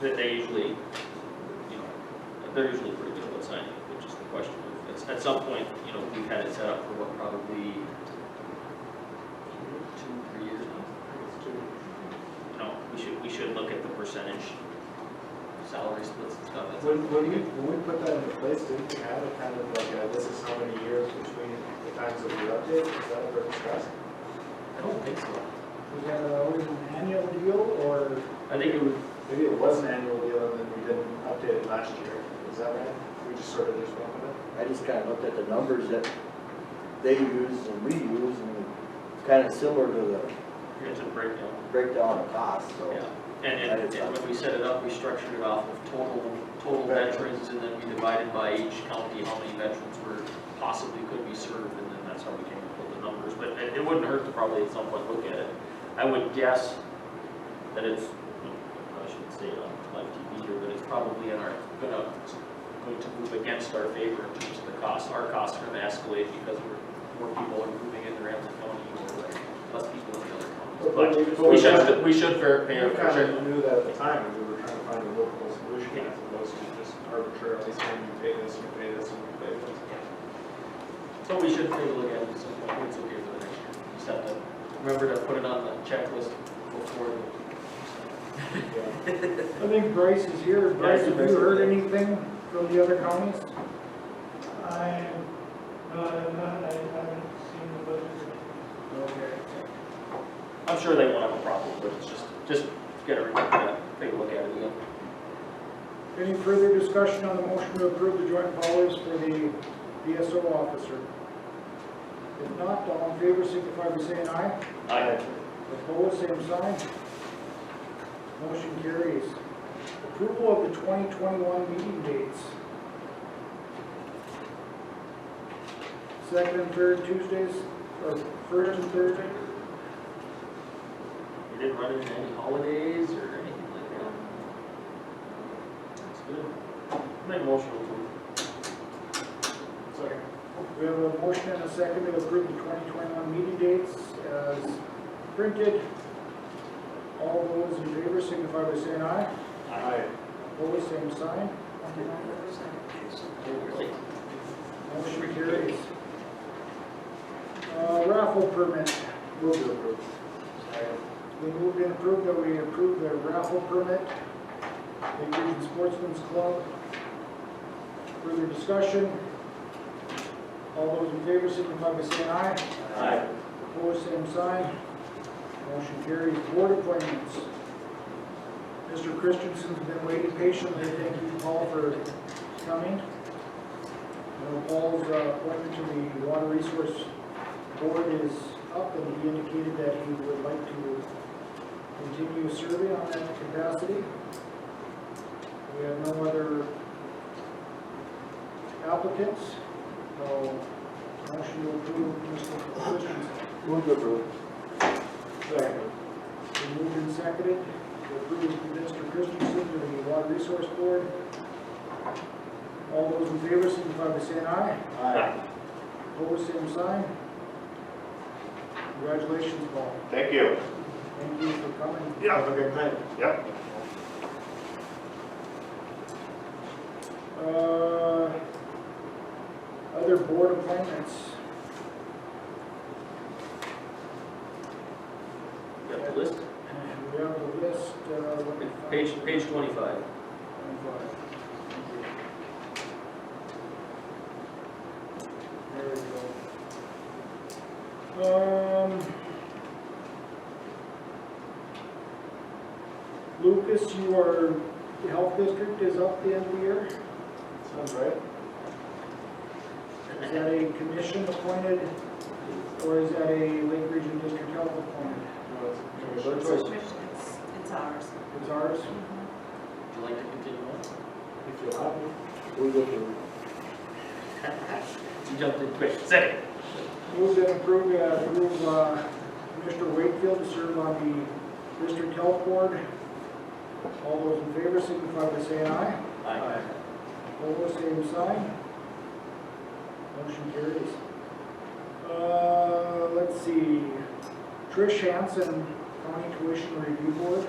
that they usually, you know, they're usually pretty good about signing it, but just the question of, it's- at some point, you know, we've had it set up for what, probably two, three years now? You know, we should, we should look at the percentage salary splits and stuff, that's, When, when you, when we put that into place, didn't we have a kind of like, uh, this is how many years between the times that we update, is that ever discussed? I don't think so. Was that always an annual deal or? I think it would, Maybe it was an annual deal and then we didn't update it last year, is that right? We just sort of just went with it? I just kind of looked at the numbers that they use and we use, and it's kind of similar to the it's a breakdown, breakdown of costs, so. yeah. And, and, and when we set it up, we structured it off of total, total veterans, and then we divided by each county how many veterans were possibly could be served, and then that's how we came up with the numbers, but it, it wouldn't hurt to probably at some point look at it. I would guess that it's, I shouldn't say it on live TV here, but it's probably in our, gonna, going to move against our favor in terms of the cost. Our costs are gonna escalate because we're, more people are moving into Ramsey County, or less people in the other counties, but. But we should, we should fair pay We our fair kind share. of knew that at the time, and we were trying to find a workable solution as opposed to just arbitrarily saying you pay this, you pay this, and you pay this. So we should take a look at it, so I think it's okay for the next year. Just have to remember to put it on the checklist before. Yeah. I think Bryce is here. Bryce, have you heard anything from the other counties? I, no, I have not, I haven't seen the budget. Okay. I'm sure they won't have a problem, but it's just, just get everybody to take a look at it again. Any further discussion on the motion to approve the joint powers for the BSO officer? If not, all in favor, signify by saying aye. I, Opposed, same sign. Motion carries. Approval of the 2021 meeting dates. Second and third Tuesdays, or first and third, we didn't run into any holidays or anything like that. That's good. Make a motion to approve. Second. We have a motion and a second to approve the 2021 meeting dates as printed. All those in favor signify by saying aye. Aye. Opposed, same sign. Really? Motion carries. Uh, Raffle permit. Move to approve. We moved and approved that we approve the raffle permit, Big Region Sportsman's Club. Further discussion? All those in favor signify by saying aye. Aye. Opposed, same sign. Motion carries. Board appointments. Mr. Christensen's been waiting patiently. Thank you, Paul, for coming. Now, Paul's uh, appointment to the Water Resource Board is up, and he indicated that he would like to continue serving on that capacity. We have no other applicants, so motion to approve Mr. Christensen. Move to approve. Second. Been moved and seconded to approve Mr. Christensen to the Water Resource Board. All those in favor signify by saying aye. Aye. Opposed, same sign. Congratulations, Paul. Thank you. Thank you for coming. Yeah. Have a good night. Yep. Uh, Other board appointments. You got the list? We have the list. uh, let me find- Page, page twenty-five. There we go. Um, Lucas, you are, the health district is up the end of the year? Sounds right. Is that a commission appointed, or is that a Lake Region District Health appointed? No, it's- Your it's- choice. It's, it's ours. It's ours? Would you like to continue on? If you allow me. Move to approve. You jumped in quick. Second. Move and approve, uh, approve, uh, Mr. Wakefield to serve on the District Health Board. All those in favor signify by saying aye. Aye. Opposed, same sign. Motion carries. Uh, let's see, Trish Hansen, County Tuition Review Board.